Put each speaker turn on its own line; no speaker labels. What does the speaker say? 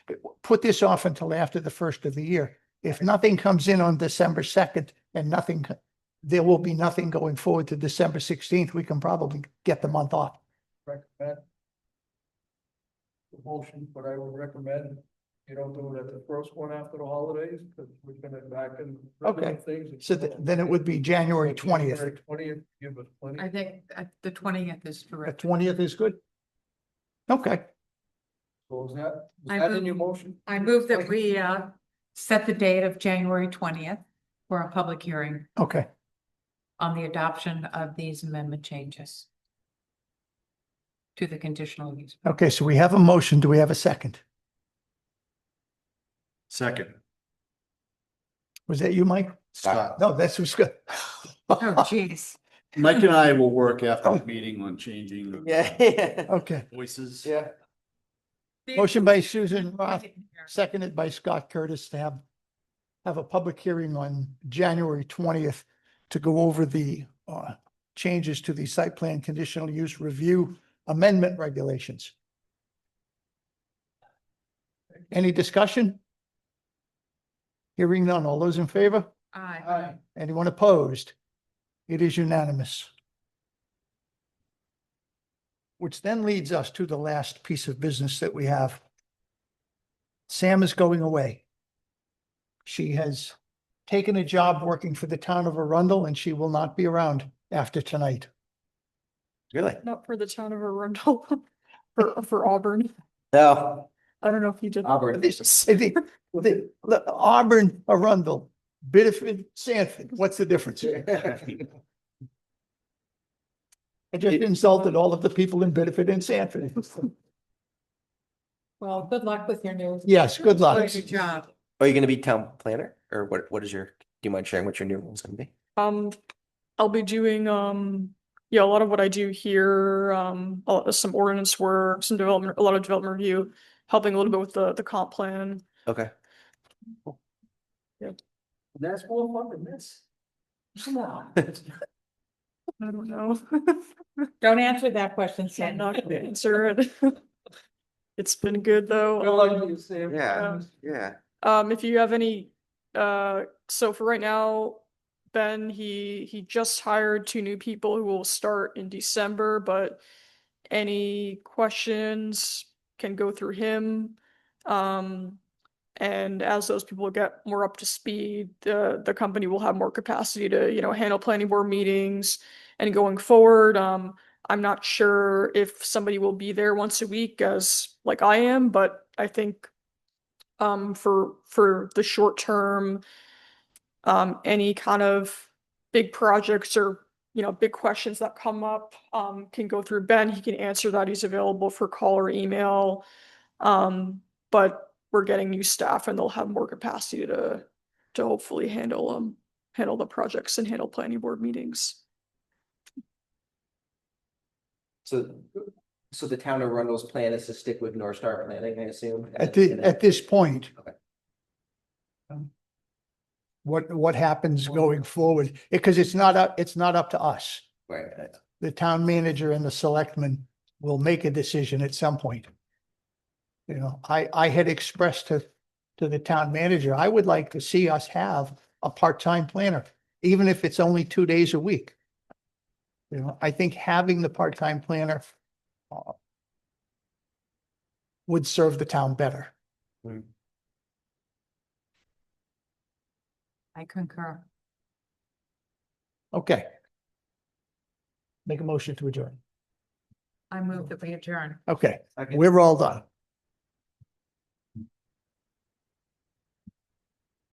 put this off until after the first of the year. If nothing comes in on December second and nothing, co- there will be nothing going forward to December sixteenth, we can probably get the month off.
recommend. The motion, but I would recommend you don't do it at the first one after the holidays, because we're gonna back in.
Okay.
Things.
So th- then it would be January twentieth.
Twentieth, give us plenty.
I think uh, the twentieth is
The
correct.
twentieth is good? Okay,
So is that,
I
is that in
move-
your motion?
I move that we uh set the date of January twentieth for a public hearing
okay.
on the adoption of these amendment changes to the conditional use.
Okay, so we have a motion. Do we have a second?
Second,
Was that you, Mike?
Scott.
No, that's who's good.
Oh, geez.
Mike and I will work after the meeting on changing the
Yeah.
Okay,
voices.
Yeah.
motion by Susan Roth, seconded by Scott Curtis to have have a public hearing on January twentieth to go over the uh changes to the site plan conditional use review amendment regulations. Any discussion? Hearing none. All those in favor?
Aye.
Aye.
Anyone opposed? It is unanimous. Which then leads us to the last piece of business that we have. Sam is going away. She has taken a job working for the town of Arundel and she will not be around after tonight.
Really?
Not for the town of Arundel, for, for Auburn.
Uh,
No.
I don't know if you did.
Auburn.
This- the- the- the Auburn, Arundel, Biddeford, Sanford, what's the difference? I just insulted all of the people in Biddeford and Sanford.
Well, good luck with your new.
Yes, good luck.
Good job.
Are you gonna be town planner or what, what is your, do you mind sharing what your new role's gonna be?
Um, I'll be doing, um, yeah, a lot of what I do here, um, a lot- some ordinance work, some development, a lot of development review, helping a little bit with the, the comp plan.
Okay.
That's more fun than this. Come on.
I don't know.
Don't answer that question,
I'm
Sam.
not gonna answer it. It's been good though.
Good luck to you, Sam.
Yeah.
Um,
Yeah.
Um, if you have any, uh, so for right now, Ben, he, he just hired two new people who will start in December, but any questions can go through him. Um, and as those people get more up to speed, the, the company will have more capacity to, you know, handle planning board meetings and going forward. Um, I'm not sure if somebody will be there once a week as like I am, but I think um for for the short term um any kind of big projects or you know big questions that come up um can go through Ben he can answer that he's available for call or email um but we're getting new staff and they'll have more capacity to to hopefully handle um handle the projects and handle planning board meetings
So, so the town of Arundel's plan is to stick with North Star Planning, I assume?
At the, at this point.
Okay.
um, What, what happens going forward? Because it's not up, it's not up to us.
Right.
The town manager and the selectmen will make a decision at some point. You know, I, I had expressed to, to the town manager, I would like to see us have a part-time planner, even if it's only two days a week. You know, I think having the part-time planner uh, would serve the town better.
I concur.
Okay. Make a motion to adjourn.
I move that we adjourn.
Okay,
Okay.
we're all done.